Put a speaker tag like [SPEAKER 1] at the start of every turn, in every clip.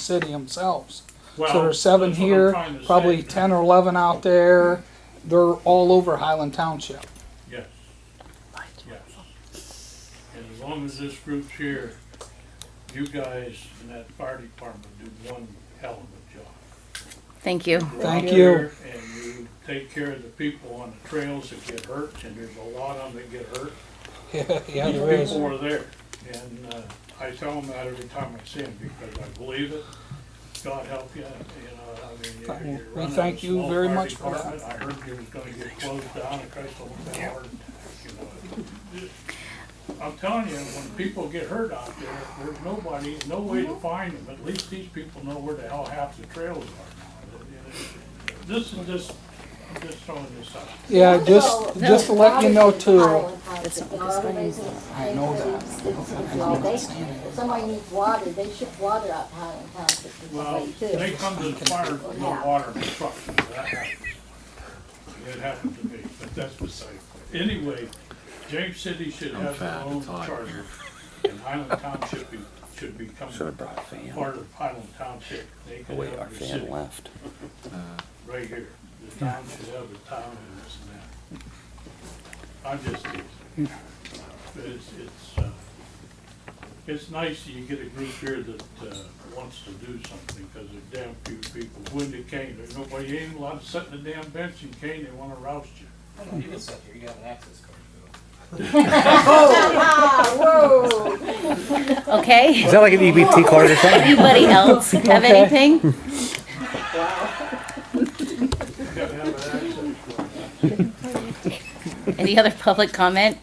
[SPEAKER 1] city themselves.
[SPEAKER 2] Well,
[SPEAKER 1] so there's seven
[SPEAKER 2] that's what I'm
[SPEAKER 1] here,
[SPEAKER 2] trying to
[SPEAKER 1] probably
[SPEAKER 2] say.
[SPEAKER 1] ten or eleven out there. They're all over Highland Township.
[SPEAKER 2] Yes. Yes. And as long as this group's here, you guys in that fire department do one hell of a job.
[SPEAKER 3] Thank you.
[SPEAKER 2] You're
[SPEAKER 1] Thank
[SPEAKER 2] out
[SPEAKER 1] you.
[SPEAKER 2] there And you take care of the people on the trails that get hurt, and there's a lot of them that get hurt.
[SPEAKER 1] yeah, yeah,
[SPEAKER 2] These
[SPEAKER 1] there is.
[SPEAKER 2] people are there, and uh, I tell them that every time I see them, because I believe it. God help you, you know, I mean,
[SPEAKER 1] Well,
[SPEAKER 2] you're- you're
[SPEAKER 1] we
[SPEAKER 2] running
[SPEAKER 1] thank
[SPEAKER 2] a
[SPEAKER 1] you
[SPEAKER 2] small
[SPEAKER 1] very
[SPEAKER 2] fire
[SPEAKER 1] much for that.
[SPEAKER 2] department. I heard you was gonna get closed down, and Christ, I that hard, you know. I'm telling you, when people get hurt out there, there's nobody, no way to find them, at least these people know where the hell half the trails are. This is just, I'm just throwing this out.
[SPEAKER 1] Yeah, just just to let you know too.
[SPEAKER 3] That's not what this one is.
[SPEAKER 1] I know that.
[SPEAKER 4] Somebody needs water, they ship water out Highland Township to
[SPEAKER 2] Well,
[SPEAKER 4] somebody
[SPEAKER 2] they
[SPEAKER 4] too.
[SPEAKER 2] come to the fire, with no water in the truck, so that happens. It happened to me, but that's beside, anyway, James City should have their own charter, and Highland Township be, should become
[SPEAKER 5] Should have brought a fan.
[SPEAKER 2] part of Highland Township. They
[SPEAKER 5] Oh
[SPEAKER 2] could
[SPEAKER 5] wait, our
[SPEAKER 2] have the
[SPEAKER 5] fan
[SPEAKER 2] city,
[SPEAKER 5] left.
[SPEAKER 2] right here, the town should have a town and this and that. I'm just, teasing. but it's, it's, uh, it's nice that you get a group here that uh, wants to do something, because there are damn few people. When they came, there's nobody, ain't a lot of sitting at the damn bench in Kane, they wanna roust you.
[SPEAKER 6] You can sit here, you have an access card.
[SPEAKER 4] Ah, whoa.
[SPEAKER 3] Okay.
[SPEAKER 5] Is that like an
[SPEAKER 7] E
[SPEAKER 5] EBT card or something?
[SPEAKER 3] Anybody else have
[SPEAKER 1] Okay.
[SPEAKER 3] anything?
[SPEAKER 2] You gotta have an access.
[SPEAKER 3] Any other public comment?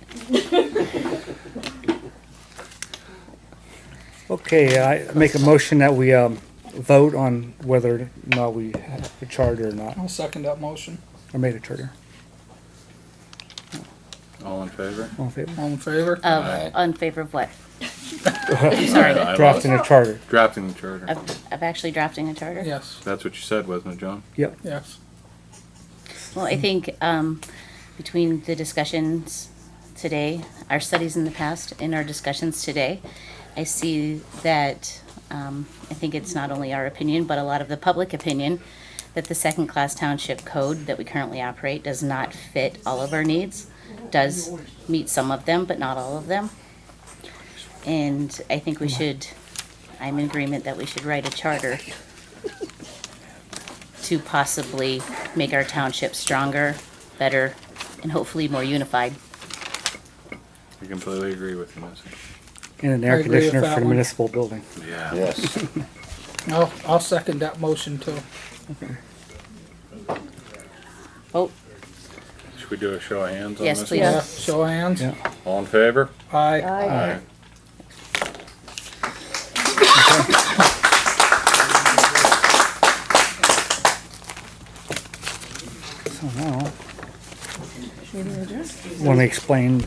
[SPEAKER 7] Okay, I make a motion that we um, vote on whether or not we have a charter or not,
[SPEAKER 1] I'll second that motion.
[SPEAKER 7] or made a charter.
[SPEAKER 5] All in favor?
[SPEAKER 7] All in favor?
[SPEAKER 1] All in favor?
[SPEAKER 3] Of,
[SPEAKER 5] Aye.
[SPEAKER 3] on favor of what?
[SPEAKER 5] Sorry.
[SPEAKER 7] Drafting a charter.
[SPEAKER 5] Drafting the charter.
[SPEAKER 3] Of, of actually drafting a charter?
[SPEAKER 1] Yes.
[SPEAKER 5] That's what you said, wasn't it, John?
[SPEAKER 7] Yep.
[SPEAKER 1] Yes.
[SPEAKER 3] Well, I think, um, between the discussions today, our studies in the past, and our discussions today, I see that, um, I think it's not only our opinion, but a lot of the public opinion, that the second-class township code that we currently operate does not fit all of our needs, does meet some of them, but not all of them. And I think we should, I'm in agreement that we should write a charter to possibly make our township stronger, better, and hopefully more unified.
[SPEAKER 5] I completely agree with you, Missy.
[SPEAKER 7] And an
[SPEAKER 1] I
[SPEAKER 7] air
[SPEAKER 1] agree with
[SPEAKER 7] conditioner
[SPEAKER 1] that
[SPEAKER 7] for the
[SPEAKER 1] one.
[SPEAKER 7] municipal building.
[SPEAKER 5] Yeah.
[SPEAKER 8] Yes.
[SPEAKER 1] I'll, I'll second that motion too.
[SPEAKER 3] Oh,
[SPEAKER 5] Should we do a show of hands on
[SPEAKER 3] Yes, Uh,
[SPEAKER 5] this?
[SPEAKER 3] please.
[SPEAKER 1] Yeah.
[SPEAKER 5] one?
[SPEAKER 1] Show of hands.
[SPEAKER 7] Yeah.
[SPEAKER 5] All in favor?
[SPEAKER 1] Aye.
[SPEAKER 5] Aye.
[SPEAKER 7] So now. Want to explain,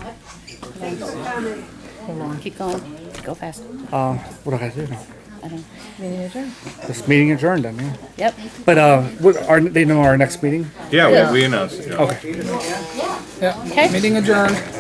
[SPEAKER 3] keep going, go fast.
[SPEAKER 7] uh, what do I do now?
[SPEAKER 3] I don't-
[SPEAKER 7] This meeting adjourned, I mean.
[SPEAKER 3] Yep,
[SPEAKER 7] But, uh, what, are, they know our next meeting?
[SPEAKER 5] Yeah, we- we announced it. John.
[SPEAKER 7] Okay.
[SPEAKER 1] Yeah.
[SPEAKER 3] okay,
[SPEAKER 1] Meeting adjourned.